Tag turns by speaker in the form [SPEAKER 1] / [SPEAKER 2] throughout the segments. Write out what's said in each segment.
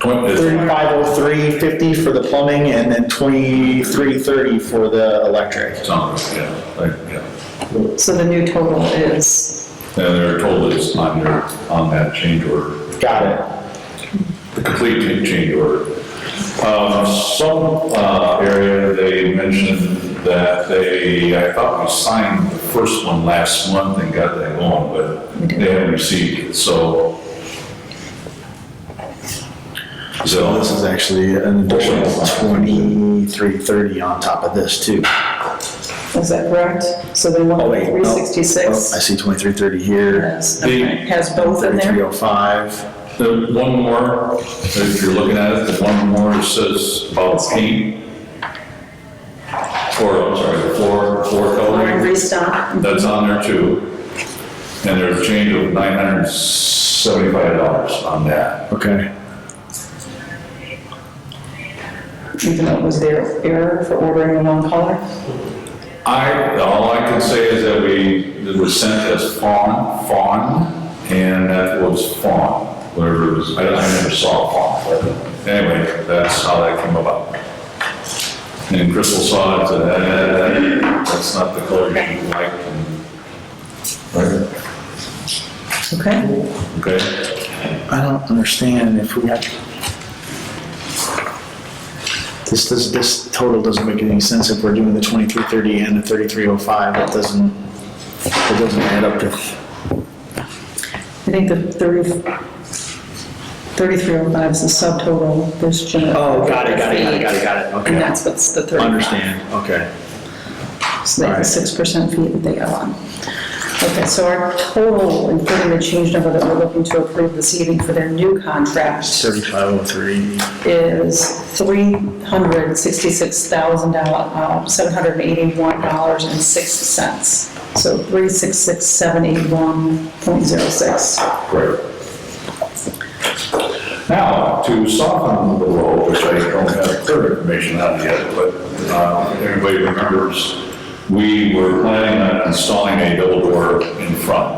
[SPEAKER 1] Thirty-five oh three fifty for the plumbing and then twenty-three thirty for the electric.
[SPEAKER 2] Something, yeah, like, yeah.
[SPEAKER 3] So the new total is,
[SPEAKER 2] And their total is on your, on that change order,
[SPEAKER 1] Got
[SPEAKER 2] the complete change order. Um, some, uh, area, they mentioned that they, I thought we signed the first one last month and got that going, but they haven't received it, so.
[SPEAKER 4] So
[SPEAKER 2] So,
[SPEAKER 4] this is actually an additional twenty-three thirty on top of this too.
[SPEAKER 3] is that correct? So they want
[SPEAKER 4] Oh, wait, no.
[SPEAKER 3] three
[SPEAKER 4] Oh, I
[SPEAKER 3] sixty-six
[SPEAKER 4] see twenty-three thirty here,
[SPEAKER 3] has both in
[SPEAKER 4] thirty-three
[SPEAKER 3] there?
[SPEAKER 4] oh five.
[SPEAKER 2] The one more, if you're looking at it, the one more that says about paint. Floor, I'm sorry, the floor, floor
[SPEAKER 3] Or
[SPEAKER 2] coloring,
[SPEAKER 3] restock?
[SPEAKER 2] that's on there too. And there's a change of nine hundred and seventy-five dollars on that.
[SPEAKER 4] Okay.
[SPEAKER 3] Even though it was their error for ordering the wrong color?
[SPEAKER 2] I, all I can say is that we, it was sent as fawn, fawn, and that was fawn, whatever it was, I I never saw fawn, but anyway, that's how that came about. And Crystal saw it, and that- that- that- that's not the color she liked, and- right,
[SPEAKER 3] Okay.
[SPEAKER 2] okay?
[SPEAKER 4] I don't understand if we got. This, this, this total doesn't make any sense if we're doing the twenty-three thirty and the thirty-three oh five, it doesn't, it doesn't add up to.
[SPEAKER 3] I think the thirty, thirty-three oh five is the subtotal, there's general.
[SPEAKER 4] Oh, got it,
[SPEAKER 3] And that's what's the thirty-five.
[SPEAKER 4] Understand, okay.
[SPEAKER 3] So they have a six percent fee that they got on. Okay, so our total, including the change number that we're looking to approve this evening for their new contract
[SPEAKER 4] Thirty-five oh three.
[SPEAKER 3] is three hundred sixty-six thousand dollars, seven hundred eighty-one dollars and six cents. So three six six seven eight one point zero six.
[SPEAKER 2] Great. Now, to soften the blow, which I don't have clear information on yet, but uh, everybody remembers, we were planning on installing a double door in front.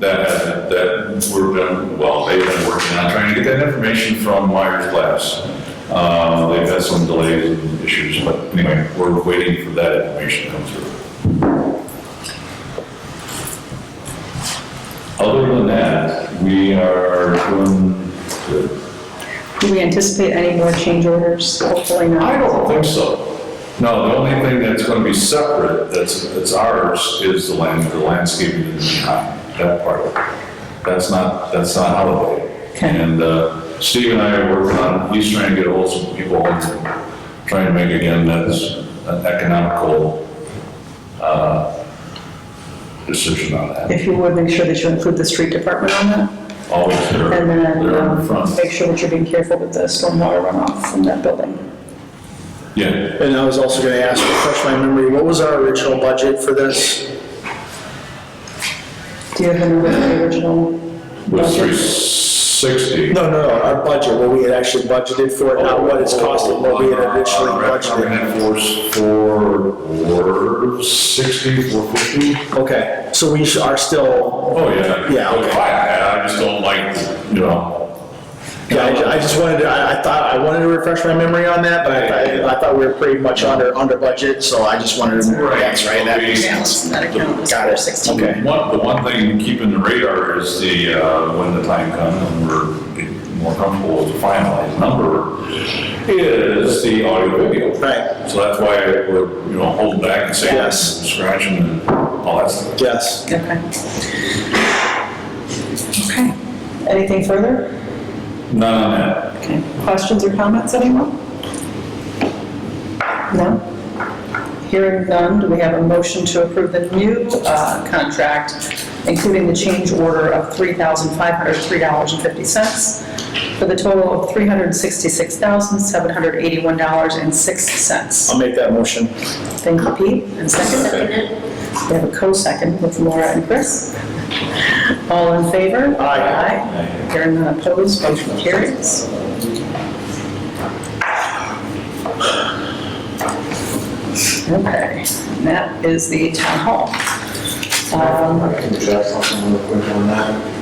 [SPEAKER 2] That, that we're been, well, they've been working on trying to get that information from Myers Glass. Uh, They've had some delays and issues, but anyway, we're waiting for that information to come through. Other than that, we are doing good.
[SPEAKER 3] Do we anticipate any more change orders? Hopefully not.
[SPEAKER 2] I don't think so. No, the only thing that's gonna be separate, that's, that's ours, is the land, the landscaping in the behind, that part. of it. That's not, that's not Holiday.
[SPEAKER 3] Okay.
[SPEAKER 2] And uh, Steve and I are working on, he's trying to get hold of some people, trying to make again, that's an economical, uh, decision on that.
[SPEAKER 3] If you would, make sure that you include the street department on that,
[SPEAKER 2] Always there,
[SPEAKER 3] and then
[SPEAKER 2] there in
[SPEAKER 3] um,
[SPEAKER 2] front.
[SPEAKER 3] make sure that you're being careful with the stormwater runoff from that building.
[SPEAKER 2] Yeah,
[SPEAKER 4] And I was also gonna ask, refresh my memory, what was our original budget for this?
[SPEAKER 3] Do you remember the original?
[SPEAKER 2] was
[SPEAKER 3] budget?
[SPEAKER 2] three sixty.
[SPEAKER 4] No, no, no, our budget, what we had actually budgeted for, it, not what it's costing, what we had
[SPEAKER 2] Uh,
[SPEAKER 4] originally
[SPEAKER 2] Recommended
[SPEAKER 4] budgeted.
[SPEAKER 2] for, for, for sixty, four fifty?
[SPEAKER 4] Okay, so we are still,
[SPEAKER 2] Oh, yeah.
[SPEAKER 4] Yeah, okay.
[SPEAKER 2] I, I just don't like, you know.
[SPEAKER 4] yeah, I ju- I just wanted to, I, I thought, I wanted to refresh my memory on that, but I, I- I thought we were pretty much under, under budget, so I just wanted to.
[SPEAKER 2] Right.
[SPEAKER 4] That's right, that makes
[SPEAKER 3] Balance
[SPEAKER 4] sense.
[SPEAKER 3] in that account was
[SPEAKER 4] Got it.
[SPEAKER 3] 416.
[SPEAKER 4] Okay.
[SPEAKER 2] One, the one thing to keep in the radar is the, uh, when the time comes and we're getting more comfortable with the finalized number, is the audio video.
[SPEAKER 4] Right,
[SPEAKER 2] So that's why we're, you know, holding back and saying,
[SPEAKER 4] Yes.
[SPEAKER 2] scratching and all that stuff.
[SPEAKER 4] yes.
[SPEAKER 3] Okay. Okay. Anything further?
[SPEAKER 2] None on that.
[SPEAKER 3] Okay. Questions or comments, anyone? No? Hearing none, do we have a motion to approve the new uh, contract, including the change order of $3,503.50 for the total of $366,781.06?
[SPEAKER 4] I'll make that motion.
[SPEAKER 3] Thank you, Pete, and second. We have a co-second with Laura and Chris. All in favor?
[SPEAKER 4] Aye.
[SPEAKER 3] Aye. Hearing none opposed, motion carries. Okay, and that is the town hall. Um,
[SPEAKER 5] I can address something real quick on that.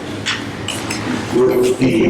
[SPEAKER 5] With the